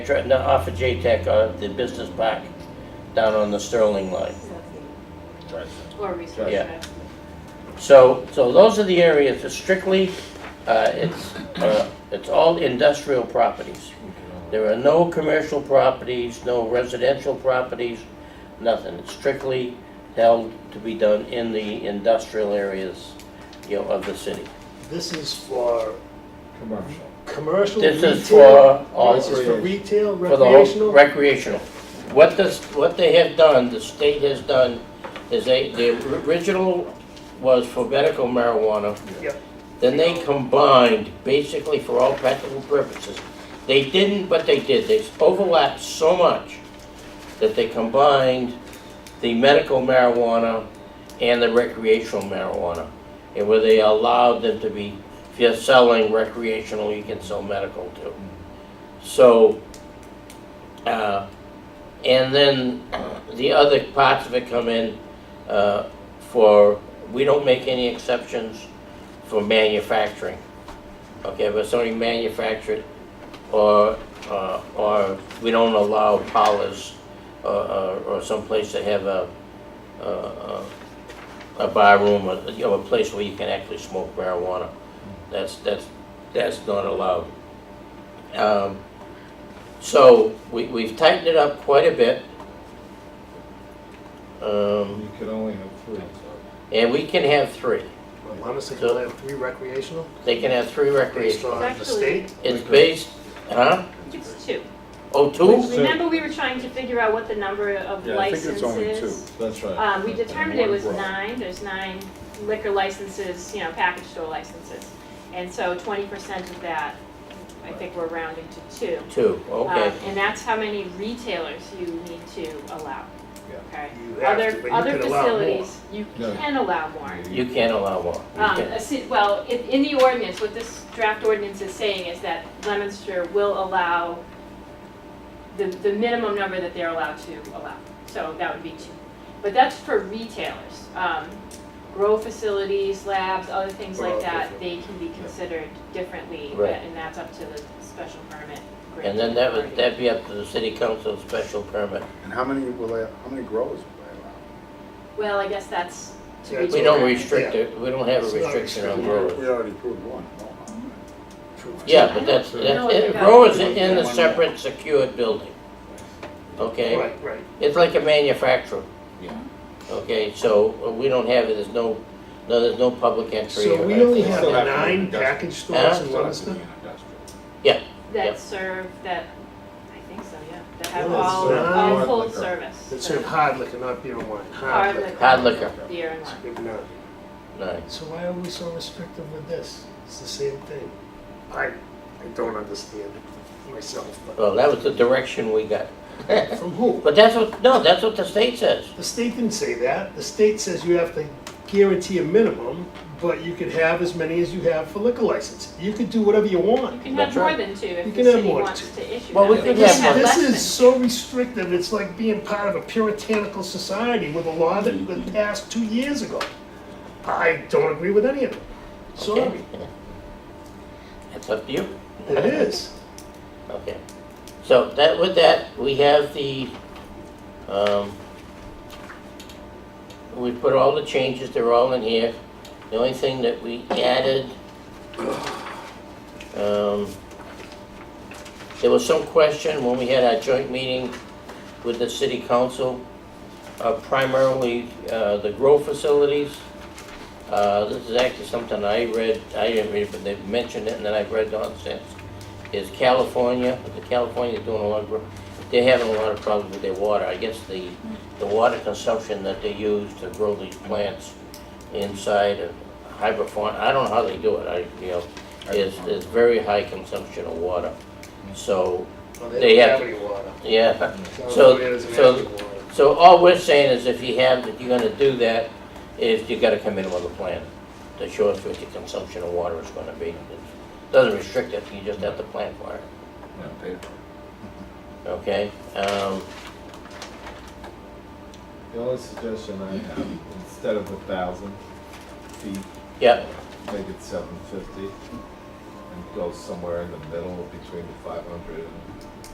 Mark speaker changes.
Speaker 1: Dr- No, off of J-Tech, uh, the business park down on the Sterling line.
Speaker 2: Or research.
Speaker 1: Yeah. So, so those are the areas, it's strictly, uh, it's, uh, it's all industrial properties. There are no commercial properties, no residential properties, nothing. It's strictly held to be done in the industrial areas, you know, of the city.
Speaker 3: This is for
Speaker 4: Commercial.
Speaker 3: commercial retail. Oh,
Speaker 1: This is for all,
Speaker 3: This is for retail,
Speaker 1: for the whole
Speaker 3: recreational.
Speaker 1: recreational. What this, what they have done, the state has done, is they, the original was for medical marijuana.
Speaker 3: Yep.
Speaker 1: Then they combined, basically for all practical purposes. They didn't, but they did, they overlapped so much that they combined the medical marijuana and the recreational marijuana. And where they allowed them to be, if you're selling recreational, you can sell medical too. So, uh, and then the other parts of it come in uh, for, we don't make any exceptions for manufacturing. Okay, but somebody manufactured or, uh, or we don't allow parlors uh, uh, or someplace to have a, a- a a bar room, or, you know, a place where you can actually smoke marijuana. That's, that's, that's not allowed. Um, so we, we've tightened it up quite a bit. Um,
Speaker 4: You could only have three.
Speaker 1: and we can have three.
Speaker 3: Well, Honestly, can I have three recreational
Speaker 1: They can have three
Speaker 3: based
Speaker 1: recreational.
Speaker 3: on the
Speaker 2: Actually-
Speaker 3: state?
Speaker 1: It's based, huh?
Speaker 2: It's two.
Speaker 1: Oh, two?
Speaker 4: So-
Speaker 2: Remember, we were trying to figure out what the number of
Speaker 5: Yeah, I think it's
Speaker 2: licenses?
Speaker 5: only
Speaker 4: That's right.
Speaker 2: Um, we determined it
Speaker 4: And
Speaker 2: was
Speaker 4: one grow.
Speaker 2: nine, there's nine liquor licenses, you know, package store licenses. And so twenty percent of that, I think we're rounding to two.
Speaker 1: Two,
Speaker 2: Um,
Speaker 1: okay.
Speaker 2: And that's how many retailers you need to allow,
Speaker 4: Yeah.
Speaker 2: okay?
Speaker 3: You have to, but
Speaker 2: Other,
Speaker 3: you
Speaker 2: other
Speaker 3: can allow more.
Speaker 2: facilities, you
Speaker 4: No.
Speaker 2: can allow more.
Speaker 1: You can't allow one. You
Speaker 2: Um,
Speaker 1: can't.
Speaker 2: a ci- well, in, in the ordinance, what this draft ordinance is saying is that Lemonster will allow the, the minimum number that they're allowed to allow, so that would be two. But that's for retailers, um, grow facilities, labs, other things like that, they can be considered differently,
Speaker 1: Right.
Speaker 2: and that's up to the special permit.
Speaker 1: And then that would,
Speaker 2: granting
Speaker 1: that'd be up to the city council special permit.
Speaker 5: And how many will they, how many growers will
Speaker 2: authority. Well, I guess that's to
Speaker 3: Yeah, it's
Speaker 1: We
Speaker 2: retail.
Speaker 1: don't
Speaker 3: already-
Speaker 1: restrict it, we don't have a
Speaker 3: It's not
Speaker 1: restriction on
Speaker 3: restricted.
Speaker 5: they allow? We
Speaker 1: growers.
Speaker 5: already approved one.
Speaker 1: Yeah, but that's,
Speaker 4: No,
Speaker 1: that's,
Speaker 2: they
Speaker 1: it-
Speaker 2: got-
Speaker 1: growers are in a separate secured building. Okay?
Speaker 3: Right, right.
Speaker 1: It's like a manufacturer.
Speaker 5: Yeah.
Speaker 1: Okay, so uh, we don't have it, there's no, no, there's no public entry.
Speaker 3: So
Speaker 1: or
Speaker 3: we only
Speaker 1: anything
Speaker 3: have
Speaker 1: like that.
Speaker 5: have to
Speaker 3: nine
Speaker 5: industrial.
Speaker 3: package stores in
Speaker 5: Still has to be
Speaker 3: Leominster?
Speaker 5: an industrial.
Speaker 1: Yep.
Speaker 2: That serve, that, I think so, yeah, that have
Speaker 3: Yeah,
Speaker 2: all,
Speaker 3: serve
Speaker 2: all
Speaker 4: hard
Speaker 2: full
Speaker 4: liquor.
Speaker 2: service.
Speaker 3: That serve hard liquor, not beer and wine, hard
Speaker 2: Hard
Speaker 3: liquor.
Speaker 2: liquor,
Speaker 1: Hard liquor,
Speaker 2: beer and wine.
Speaker 3: Maybe not.
Speaker 1: nine.
Speaker 3: So why are we so restrictive with this? It's the same thing. I, I don't understand myself, but
Speaker 1: Well, that was the direction we got. But
Speaker 3: from who?
Speaker 1: that's what, no, that's what the state says.
Speaker 3: The state didn't say that. The state says you have to guarantee a minimum, but you could have as many as you have for liquor license. You could do whatever you
Speaker 2: You
Speaker 3: want.
Speaker 2: can
Speaker 1: That's
Speaker 2: have more
Speaker 1: right.
Speaker 2: than two
Speaker 3: You
Speaker 2: if the
Speaker 3: can have
Speaker 2: city
Speaker 3: more than
Speaker 2: wants to issue
Speaker 1: Well,
Speaker 2: them.
Speaker 1: we
Speaker 2: They
Speaker 1: could
Speaker 2: can
Speaker 3: This,
Speaker 1: have
Speaker 2: less
Speaker 3: this
Speaker 2: than
Speaker 3: is so restrictive. It's like being part of a puritanical society with a law that was passed two years ago. I don't agree with any of it. Sorry,
Speaker 1: Okay. That's up to you.
Speaker 3: it is.
Speaker 1: Okay. So that, with that, we have the, um, we put all the changes, they're all in here. The only thing that we added, um, there was some question when we had our joint meeting with the city council, uh, primarily, uh, the grow facilities. Uh, this is actually something I read, I didn't read it, but they mentioned it, and then I've read on since is California, the California's doing a lot of, they're having a lot of problems with their water. I guess the, the water consumption that they use to grow these plants inside of hydroponic, I don't know how they do it, I, you know, is, is very high consumption of water. So,
Speaker 3: Well,
Speaker 1: They
Speaker 3: don't
Speaker 1: have-
Speaker 3: any water.
Speaker 1: yeah,
Speaker 3: So,
Speaker 1: So-
Speaker 3: it is an
Speaker 1: so-
Speaker 3: actual water.
Speaker 1: so all we're saying is if you have, if you're gonna do that, is you gotta come in with a plan that shows what your consumption of water is gonna be. It Doesn't restrict it, you just have to plan for it.
Speaker 5: Yeah, paid for.
Speaker 1: Okay, um,
Speaker 4: The only suggestion I have, instead of a thousand feet,
Speaker 1: yeah,
Speaker 4: make it seven fifty. And go somewhere in the middle between the five hundred and